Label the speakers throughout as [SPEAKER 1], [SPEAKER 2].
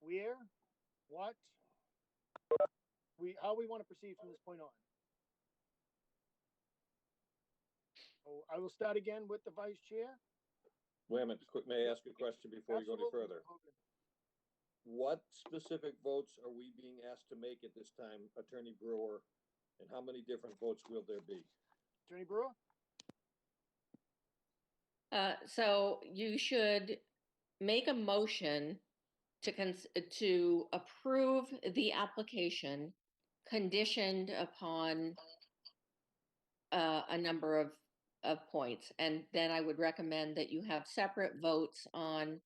[SPEAKER 1] where, what, we how we want to proceed from this point on. So I will start again with the vice chair.
[SPEAKER 2] Wait a minute, quick, may I ask a question before you go any
[SPEAKER 1] Absolutely,
[SPEAKER 2] further?
[SPEAKER 1] Hogan.
[SPEAKER 2] What specific votes are we being asked to make at this time, Attorney Brewer? And how many different votes will there be?
[SPEAKER 1] Attorney Brewer,
[SPEAKER 3] Uh, so you should make a motion to cons- to approve the application conditioned upon uh, a number of, of points. And then I would recommend that you have separate votes on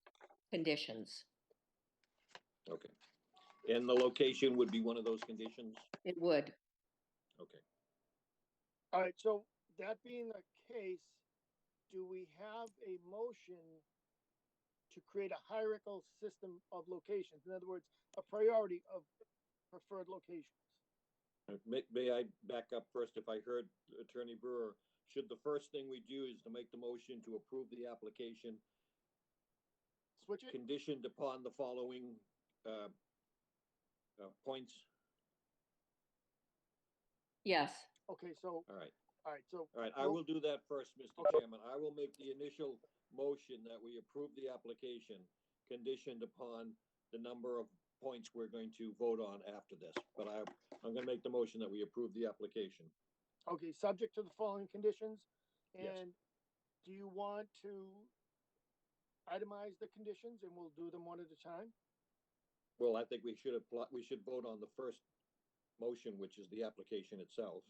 [SPEAKER 3] conditions.
[SPEAKER 2] Okay. And the location would be one of those conditions?
[SPEAKER 3] It would.
[SPEAKER 2] Okay.
[SPEAKER 1] all right, so that being the case, do we have a motion to create a hierarchical system of locations? In other words, a priority of preferred locations?
[SPEAKER 2] May, may I back up first if I heard Attorney Brewer? Should the first thing we do is to make the motion to approve the application
[SPEAKER 1] Switch it?
[SPEAKER 2] conditioned upon the following, uh, uh, points?
[SPEAKER 3] Yes.
[SPEAKER 1] Okay, so,
[SPEAKER 2] All right.
[SPEAKER 1] all right, so
[SPEAKER 2] All right, I will do that first, Mr. Chairman. I will make the initial motion that we approve the application conditioned upon the number of points we're going to vote on after this. But I, I'm gonna make the motion that we approve the application.
[SPEAKER 1] Okay, subject to the following conditions,
[SPEAKER 2] Yes.
[SPEAKER 1] and do you want to itemize the conditions and we'll do them one at a time?
[SPEAKER 2] Well, I think we should have, we should vote on the first motion, which is the application itself.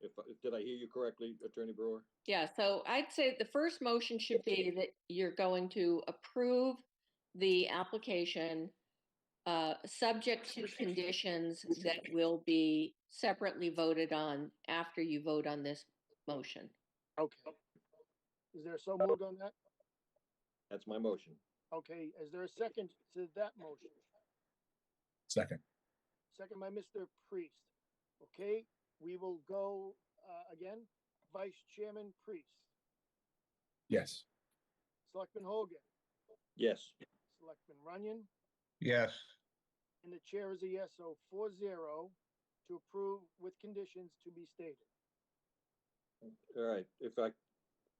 [SPEAKER 2] If, did I hear you correctly, Attorney Brewer?
[SPEAKER 3] Yeah, so I'd say the first motion should be that you're going to approve the application uh, subject to conditions that will be separately voted on after you vote on this motion.
[SPEAKER 1] Okay. Is there so moved on that?
[SPEAKER 2] That's my motion.
[SPEAKER 1] Okay, is there a second to that motion?
[SPEAKER 4] Second.
[SPEAKER 1] Second by Mr. Priest. Okay, we will go, uh, again, Vice Chairman Priest,
[SPEAKER 4] Yes.
[SPEAKER 1] Selectman Hogan,
[SPEAKER 2] Yes,
[SPEAKER 1] Selectman Runyon,
[SPEAKER 4] Yes.
[SPEAKER 1] And the chair is a yes, so four zero to approve with conditions to be stated.
[SPEAKER 2] all right, if I,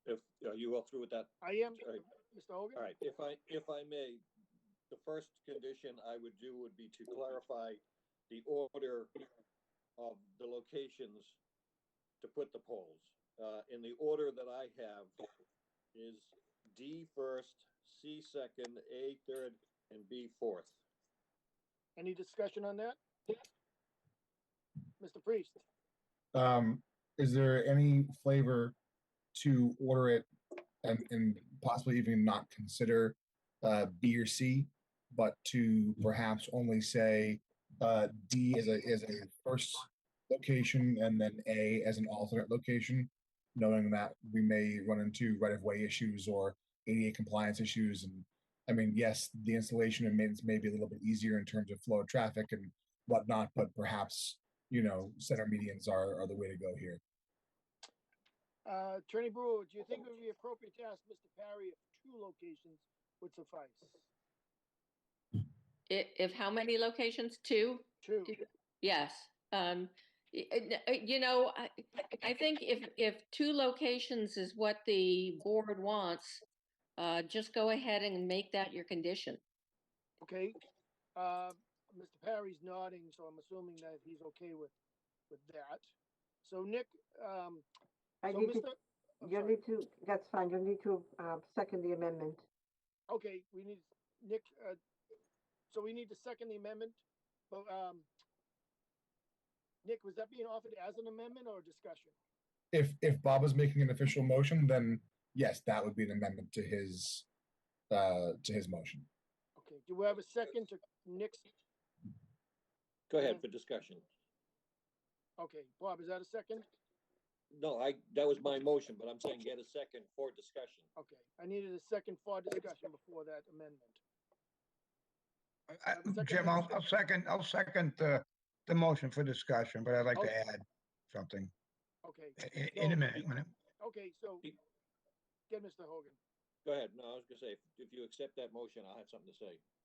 [SPEAKER 2] if, are you all through with that,
[SPEAKER 1] I am,
[SPEAKER 2] All right.
[SPEAKER 1] Mr. Hogan?
[SPEAKER 2] All right, if I, if I may, the first condition I would do would be to clarify the order of the locations to put the polls. Uh, in the order that I have is D first, C second, A third, and B fourth.
[SPEAKER 1] Any discussion on that? Mr. Priest,
[SPEAKER 4] Um, is there any flavor to order it and, and possibly even not consider uh, B or C, but to perhaps only say uh, D as a, as a first location and then A as an alternate location, knowing that we may run into right-of-way issues or ADA compliance issues and I mean, yes, the installation and maintenance may be a little bit easier in terms of flow of traffic and whatnot, but perhaps you know, center medians are, are the way to go here.
[SPEAKER 1] uh, Attorney Brewer, do you think it would be appropriate to ask Mr. Parry if two locations would suffice?
[SPEAKER 3] I- If how many locations? Two?
[SPEAKER 1] Two,
[SPEAKER 3] Yes. Um, y- n- uh, You know, I I think if, if two locations is what the board wants, uh, just go ahead and make that your condition.
[SPEAKER 1] okay? Uh, Mr. Parry's nodding, so I'm assuming that he's okay with, with that. So Nick, um,
[SPEAKER 5] I
[SPEAKER 1] so
[SPEAKER 5] need
[SPEAKER 1] Mr.
[SPEAKER 5] to,
[SPEAKER 1] I'm
[SPEAKER 5] you'll
[SPEAKER 1] sorry.
[SPEAKER 5] need to, that's fine, you'll need to, um, second the amendment.
[SPEAKER 1] Okay, we need, Nick, uh, so we need to second the amendment, but, um, Nick, was that being offered as an amendment or a discussion?
[SPEAKER 4] If if Bob is making an official motion, then yes, that would be an amendment to his uh to his motion.
[SPEAKER 1] Okay, do we have a second to Nick's,
[SPEAKER 2] Go ahead for discussion.
[SPEAKER 1] okay, Bob, is that a second?
[SPEAKER 2] No, I, that was my motion, but I'm saying get a second for discussion.
[SPEAKER 1] Okay, I needed a second for discussion before that amendment.
[SPEAKER 6] I-
[SPEAKER 1] Have a second
[SPEAKER 6] Jim,
[SPEAKER 1] on
[SPEAKER 6] I'll,
[SPEAKER 1] the
[SPEAKER 6] I'll second, I'll second the, the motion for discussion, but I'd like
[SPEAKER 1] Okay.
[SPEAKER 6] to add something
[SPEAKER 1] Okay,
[SPEAKER 6] i- i- in
[SPEAKER 1] So-
[SPEAKER 6] a minute. when it-
[SPEAKER 1] okay, so, get Mr. Hogan.
[SPEAKER 2] Go ahead, no, I was gonna say, if you accept that motion, I'll have something to say.